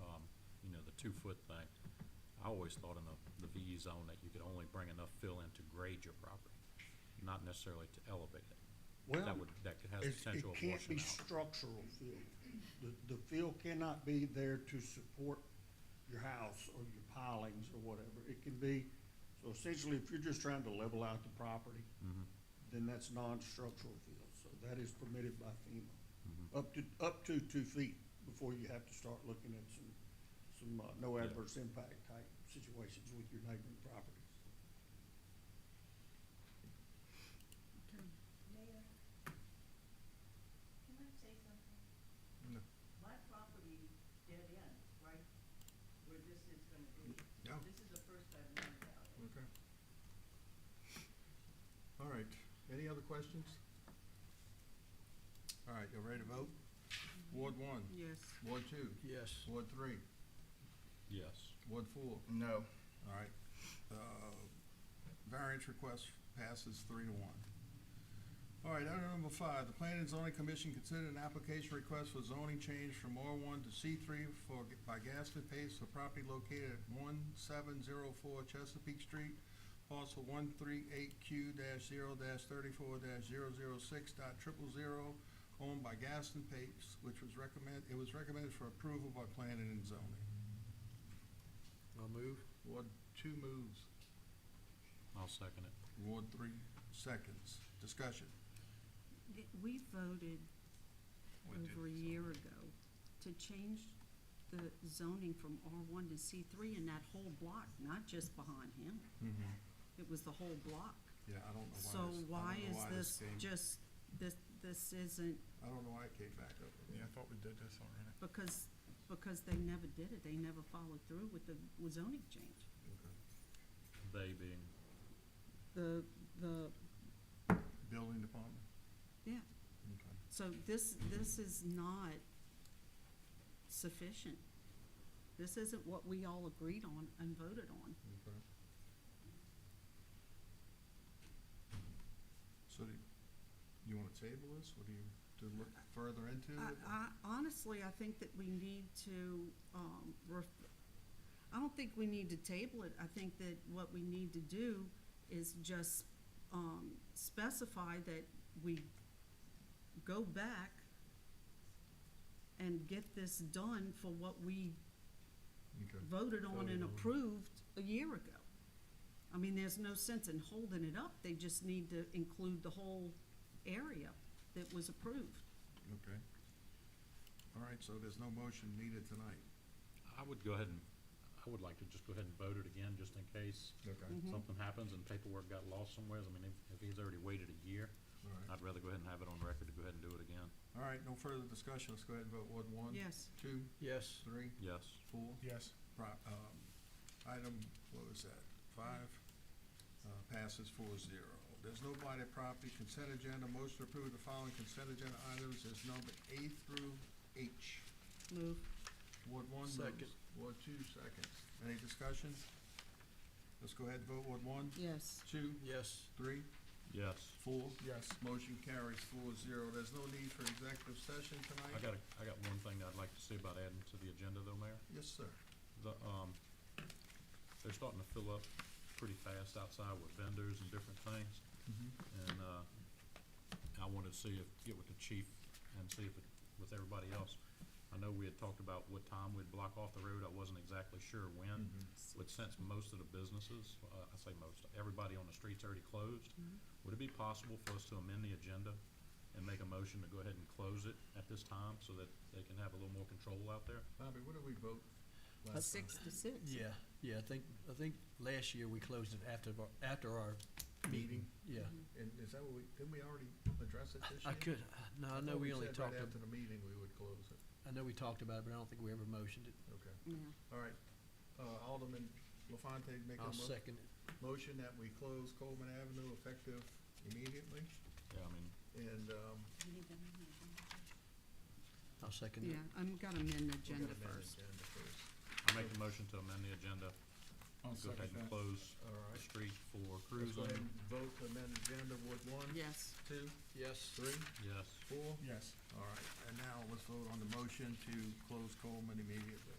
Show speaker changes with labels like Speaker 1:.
Speaker 1: um, two-foot thing, I always thought in the, the VE zone that you could only bring enough fill in to grade your property, not necessarily to elevate it. That would, that could- has
Speaker 2: It's-
Speaker 1: potential
Speaker 2: It
Speaker 1: of
Speaker 2: can't
Speaker 1: washing
Speaker 2: be
Speaker 1: out.
Speaker 2: structural fill. The, the fill cannot be there to support your house or your pilings or whatever. It can be, so essentially, if you're just trying to level out the property,
Speaker 1: Mm-hmm.
Speaker 2: then that's non-structural fill, so that is permitted by
Speaker 1: Mm-hmm.
Speaker 2: FEMA. Up to, up to two feet before you have to start looking at some, some, uh, no
Speaker 1: Yeah.
Speaker 2: adverse impact type situations with your neighboring properties.
Speaker 3: Mayor, can I say something?
Speaker 4: No.
Speaker 3: My property dead end, right, where this is gonna be.
Speaker 4: Yeah.
Speaker 3: This is the first I've known about it.
Speaker 4: Okay. All right, any other questions? All right, y'all ready to vote? Ward one,
Speaker 5: Yes.
Speaker 4: Ward two,
Speaker 6: Yes.
Speaker 4: Ward three,
Speaker 1: Yes.
Speaker 4: Ward four,
Speaker 6: No.
Speaker 4: all right. Uh, Variance request passes three to one. All right, item number five, the Planning and Zoning Commission considered an application request for zoning change from R one to C three for, by Gaston Pace for property located at one seven zero four Chesapeake Street, parcel one three eight Q dash zero dash thirty-four dash zero zero six dot triple zero, owned by Gaston Pace, which was recommend, it was recommended for approval by Planning and Zoning.
Speaker 6: I'll move.
Speaker 4: Ward two moves.
Speaker 1: I'll second it.
Speaker 4: Ward three seconds. Discussion.
Speaker 5: We voted
Speaker 6: We did.
Speaker 5: over a year ago to change the zoning from R one to C three in that whole block, not just behind him.
Speaker 6: Mm-hmm.
Speaker 5: It was the whole block.
Speaker 4: Yeah, I don't know why this.
Speaker 5: So
Speaker 4: I don't
Speaker 5: why
Speaker 4: know
Speaker 5: is this
Speaker 4: came-
Speaker 5: just, this, this isn't,
Speaker 4: I don't know why it came back up.
Speaker 6: Yeah, I thought we did this already.
Speaker 5: because, because they never did it. They never followed through with the zoning change.
Speaker 4: Okay.
Speaker 1: They being,
Speaker 5: The, the,
Speaker 4: Building department?
Speaker 5: yeah,
Speaker 4: Okay.
Speaker 5: So this, this is not sufficient. This isn't what we all agreed on and voted on.
Speaker 4: Okay. So do you want to table this or do you, to look further into
Speaker 5: I,
Speaker 4: it?
Speaker 5: I honestly, I think that we need to, um, ref- I don't think we need to table it. I think that what we need to do is just, um, specify that we go back and get this done for what we
Speaker 4: Okay.
Speaker 5: voted on
Speaker 4: Voted
Speaker 5: and
Speaker 4: on.
Speaker 5: approved a year ago. I mean, there's no sense in holding it up, they just need to include the whole area that was approved.
Speaker 4: Okay. All right, so there's no motion needed tonight.
Speaker 1: I would go ahead and, I would like to just go ahead and vote it again, just in case
Speaker 4: Okay.
Speaker 5: Mhm.
Speaker 1: something happens and paperwork got lost somewhere. I mean, if, if he's already waited a year,
Speaker 4: All right.
Speaker 1: I'd rather go ahead and have it on record to go ahead and do it again.
Speaker 4: All right, no further discussion. Let's go ahead and vote. Ward one?
Speaker 5: Yes,
Speaker 4: Two,
Speaker 6: Yes.
Speaker 4: three,
Speaker 1: Yes.
Speaker 4: four?
Speaker 6: Yes.
Speaker 4: Pro- um, Item, what was that, five, uh, passes four zero. There's no blighted property, consent agenda, motion to approve the following consent agenda items is number A through H.
Speaker 5: move,
Speaker 4: Ward one moves.
Speaker 6: Second.
Speaker 4: Ward two seconds. Any discussion? Let's go ahead and vote, Ward one,
Speaker 5: yes,
Speaker 4: two,
Speaker 6: Yes.
Speaker 4: three,
Speaker 1: Yes.
Speaker 4: four.
Speaker 6: Yes.
Speaker 4: Motion carries four zero. There's no need for executive session
Speaker 1: I
Speaker 4: tonight?
Speaker 1: got, a- I got one thing that I'd like to say about adding to the agenda though, Mayor.
Speaker 4: Yes, sir.
Speaker 1: The, um, they're starting to fill up pretty fast outside with vendors and different things.
Speaker 6: Mm-hmm.
Speaker 1: And, uh, I wanted to see if, get with the chief and see if, it with everybody else. I know we had talked about what time we'd block off the road. I wasn't exactly sure when.
Speaker 4: Mm-hmm.
Speaker 1: But since most of the businesses, uh, I say most, everybody on the street's already closed, would it be possible for us to amend the agenda and make a motion to go ahead and close it at this time so that they can have a little more control out there?
Speaker 4: Bobby, what did we vote last time?
Speaker 5: six to six.
Speaker 6: Yeah, yeah, I think, I think last year we closed it after, our- after our meeting, yeah.
Speaker 4: And is that what we, didn't we already address it this year?
Speaker 6: I could, uh, no, I know
Speaker 4: thought
Speaker 6: we only
Speaker 4: said
Speaker 6: talked,
Speaker 4: Right
Speaker 6: ab-
Speaker 4: after the meeting, we would close it.
Speaker 6: I know we talked about it, but I don't think we ever motioned it.
Speaker 4: Okay.
Speaker 5: yeah,
Speaker 4: All right. Uh, Alderman LaFonte make a
Speaker 6: I'll
Speaker 4: mo-
Speaker 6: second it.
Speaker 4: motion that we close Coleman Avenue effective immediately.
Speaker 1: Yeah, I mean,
Speaker 4: And, um,
Speaker 6: I'll second
Speaker 5: yeah,
Speaker 6: it.
Speaker 5: I'm gonna amend the
Speaker 4: we got
Speaker 5: agenda first.
Speaker 4: Agenda first.
Speaker 1: I make the motion to amend the agenda, go ahead and close the
Speaker 4: All right.
Speaker 1: street for
Speaker 4: Let's go
Speaker 1: cruising.
Speaker 4: ahead and vote to amend agenda. Ward one,
Speaker 5: Yes,
Speaker 4: two,
Speaker 6: Yes.
Speaker 4: three,
Speaker 1: Yes.
Speaker 4: four.
Speaker 6: Yes.
Speaker 4: All right. And now let's vote on the motion to close Coleman immediately.